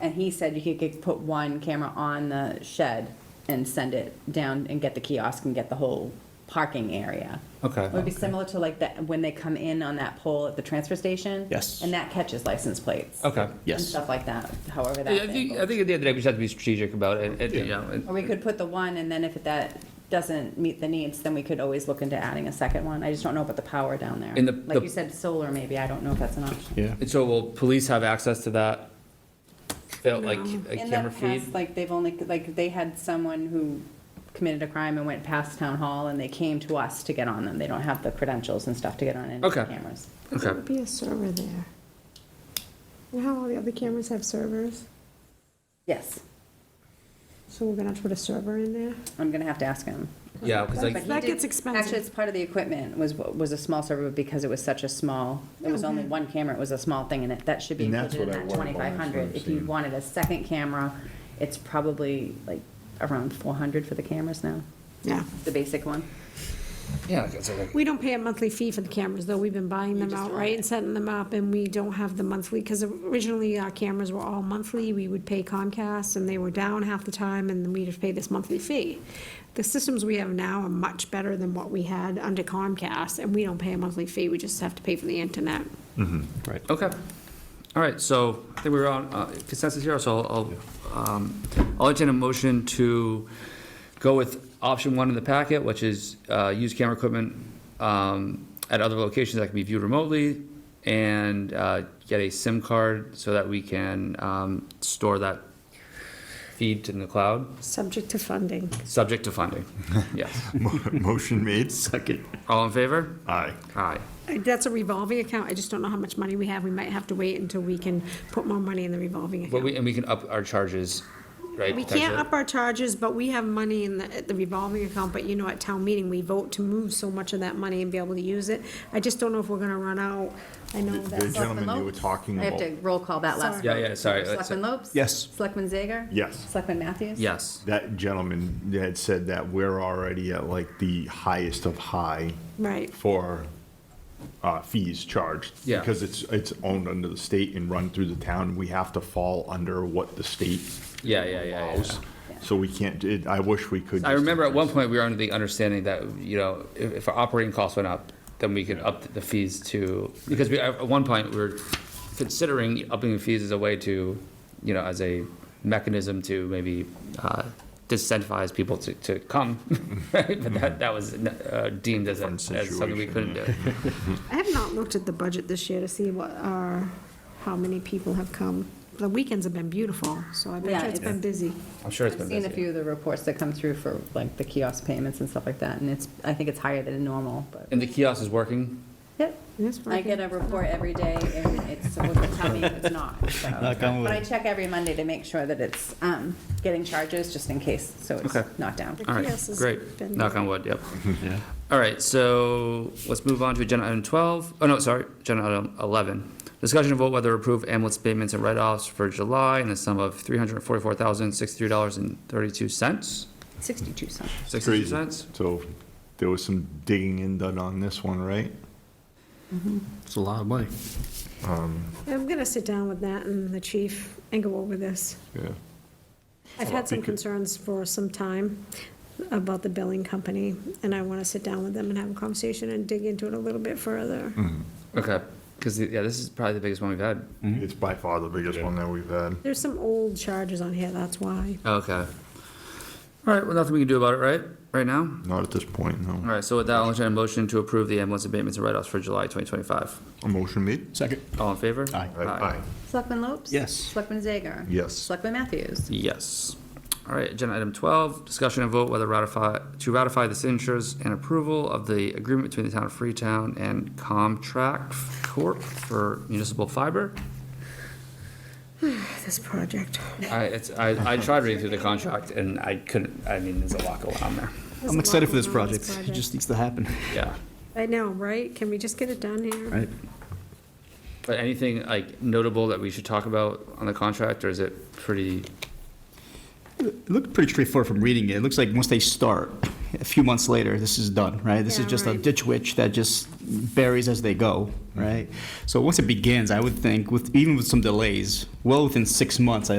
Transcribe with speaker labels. Speaker 1: And he said you could- could put one camera on the shed and send it down and get the kiosk and get the whole parking area.
Speaker 2: Okay.
Speaker 1: It would be similar to like that, when they come in on that pole at the transfer station.
Speaker 3: Yes.
Speaker 1: And that catches license plates.
Speaker 2: Okay.
Speaker 1: And
Speaker 3: Yes.
Speaker 1: stuff like that, however
Speaker 2: I
Speaker 1: that's
Speaker 2: think, I
Speaker 1: angled.
Speaker 2: think at the end of the day, we just have to be strategic about it, and, you know, and-
Speaker 1: Or we could put the one, and then if that doesn't meet the needs, then we could always look into adding a second one. I just don't know about the power down there.
Speaker 2: And the-
Speaker 1: Like
Speaker 2: the-
Speaker 1: you said, solar maybe, I don't know if that's an option.
Speaker 3: Yeah.
Speaker 2: and so will police have access to that? Felt like a
Speaker 1: In the
Speaker 2: camera feed?
Speaker 1: past, like, they've only, like, they had someone who committed a crime and went past town hall, and they came to us to get on them. They don't have the credentials and stuff to get on any of the
Speaker 2: Okay.
Speaker 1: cameras.
Speaker 2: Okay.
Speaker 4: There would be a server there. You know how all the other cameras have servers?
Speaker 1: Yes,
Speaker 4: So we're gonna have to put a server in there?
Speaker 1: I'm gonna have to ask him.
Speaker 2: Yeah, because like,
Speaker 1: But he
Speaker 4: That
Speaker 1: did-
Speaker 4: gets expensive.
Speaker 1: Actually, it's part of the equipment, was, was a small server, because it was such a small, it was only one camera, it was a small thing, and it, that should be
Speaker 5: And that's
Speaker 1: included in
Speaker 5: what I
Speaker 1: that
Speaker 5: worry about, that's
Speaker 1: twenty-five
Speaker 5: what I'm
Speaker 1: hundred. If you
Speaker 5: seeing.
Speaker 1: wanted a second camera, it's probably like around four hundred for the cameras now,
Speaker 4: Yeah.
Speaker 1: the basic one.
Speaker 2: yeah, like, it's like,
Speaker 4: We don't pay a monthly fee for the cameras, though. We've been buying them
Speaker 1: just own
Speaker 4: outright
Speaker 1: it.
Speaker 4: and setting them up, and we don't have the monthly, because originally our cameras were all monthly. We would pay Comcast, and they were down half the time, and then we'd have to pay this monthly fee. The systems we have now are much better than what we had under Comcast, and we don't pay a monthly fee. We just have to pay for the internet.
Speaker 2: okay. All right, so I think we're on uh, consensus here, so I'll, um, I'll entertain a motion to go with option one in the packet, which is, uh, use camera equipment, um, at other locations that can be viewed remotely, and, uh, get a SIM card so that we can, um, store that feed in the cloud,
Speaker 4: Subject to funding.
Speaker 2: subject to funding. Yes.
Speaker 5: Motion made. Second.
Speaker 2: All in favor?
Speaker 5: Aye.
Speaker 2: Aye.
Speaker 4: That's a revolving account. I just don't know how much money we have. We might have to wait until we can put more money in the revolving
Speaker 2: But we,
Speaker 4: account.
Speaker 2: and we can up our charges, right?
Speaker 4: We can't
Speaker 2: potentially?
Speaker 4: up our charges, but we have money in the, at the revolving account, but you know, at town meeting, we vote to move so much of that money and be able to use it. I just don't know if we're gonna run out. I know
Speaker 5: The
Speaker 4: that's,
Speaker 5: gentleman you were talking
Speaker 1: I have
Speaker 5: about.
Speaker 1: to roll call that last.
Speaker 2: Yeah,
Speaker 1: vote.
Speaker 2: yeah, sorry, that's
Speaker 1: Selectman
Speaker 2: it.
Speaker 1: Lopes?
Speaker 3: Yes.
Speaker 1: Selectman Zager?
Speaker 5: Yes.
Speaker 1: Selectman Matthews?
Speaker 2: Yes.
Speaker 5: That gentleman had said that we're already at like the highest of high
Speaker 4: right.
Speaker 5: for uh, fees charged.
Speaker 2: Yeah.
Speaker 5: Because it's, it's owned under the state and run through the town. We have to fall under what the state
Speaker 2: Yeah, yeah, yeah, yeah.
Speaker 5: allows. So we can't, it- I wish we could.
Speaker 2: I
Speaker 5: just
Speaker 2: remember at one
Speaker 5: increase
Speaker 2: point, we were under the understanding that, you know, if, if our operating costs went up, then we could up the fees to, because we, at one point, we were considering upping the fees as a way to, you know, as a mechanism to maybe, uh, disincentivize people to, to come, right? But that, that was uh, deemed as, a-
Speaker 5: Different
Speaker 2: as something we couldn't
Speaker 5: situation,
Speaker 2: do.
Speaker 4: I have not looked at the budget this year to see what our, how many people have come. The weekends have been beautiful, so I bet
Speaker 1: Yeah,
Speaker 4: you it's been busy.
Speaker 2: I'm sure it's
Speaker 1: I've
Speaker 2: been
Speaker 1: seen a
Speaker 2: busy.
Speaker 1: few of the reports that come through for like the kiosk payments and stuff like that, and it's, I think it's higher than normal, but,
Speaker 2: And the kiosk is working?
Speaker 1: yep.
Speaker 4: Yes,
Speaker 1: I get a report every day, and it's supposed to tell me if it's not, so.
Speaker 3: on
Speaker 1: But I check every Monday to make sure that it's, um, getting charges, just in case, so it's
Speaker 2: Okay.
Speaker 1: not down.
Speaker 2: All right,
Speaker 4: Yes, it's
Speaker 2: great.
Speaker 4: been-
Speaker 2: Knock on wood, yep.
Speaker 3: Yeah.
Speaker 2: All right, so let's move on to agenda item 12. Oh, no, sorry, agenda item 11. Discussion of vote whether approve ambulance payments and write-offs for July in the sum of $344,063.32.
Speaker 1: Sixty-two cents.
Speaker 2: 62
Speaker 5: Crazy.
Speaker 2: cents?
Speaker 5: So there was some digging in done on this one, right?
Speaker 3: It's a lot of money.
Speaker 4: I'm gonna sit down with Nat and the chief and go over this.
Speaker 5: Yeah.
Speaker 4: I've had some
Speaker 5: Thank you.
Speaker 4: concerns for some time about the billing company, and I want to sit down with them and have a conversation and dig into it a little bit further.
Speaker 3: Hmm.
Speaker 2: Okay, because, yeah, this is probably the biggest one we've had.
Speaker 5: It's by far the biggest one that we've had.
Speaker 4: There's some old charges on here, that's why.
Speaker 2: Okay. All right, well, nothing we can do about it, right? Right now?
Speaker 5: Not at this point, no.
Speaker 2: All right, so with that, I'll entertain a motion to approve the ambulance abatements and write-offs for July 2025.
Speaker 5: A motion made?
Speaker 3: Second.
Speaker 2: All in favor?
Speaker 5: Aye.
Speaker 1: Selectman Lopes?
Speaker 3: Yes.
Speaker 1: Selectman Zager?
Speaker 5: Yes.
Speaker 1: Selectman Matthews?
Speaker 2: Yes. All right, agenda item twelve, discussion and vote whether ratify, to ratify the signatures and approval of the agreement between the town of Freetown and Comtract Corp. for municipal fiber.
Speaker 4: This project.
Speaker 2: I, it's, I, I tried reading through the contract and I couldn't, I mean, there's a lot going on there.
Speaker 4: There's a
Speaker 3: I'm
Speaker 4: lot
Speaker 3: excited for this
Speaker 4: going on with
Speaker 3: project.
Speaker 4: this
Speaker 3: It just needs to happen.
Speaker 2: Yeah.
Speaker 4: I know, right? Can we just get it done here?
Speaker 3: Right.
Speaker 2: But anything like notable that we should talk about on the contract or is it pretty,
Speaker 3: It looked pretty straightforward from reading it. It looks like once they start,
Speaker 6: a few months later, this is done, right? This is
Speaker 4: Yeah,
Speaker 6: just a
Speaker 4: right.
Speaker 6: ditch witch that just buries as they go, right? So once it begins, I would think, with, even with some delays, well within six months, I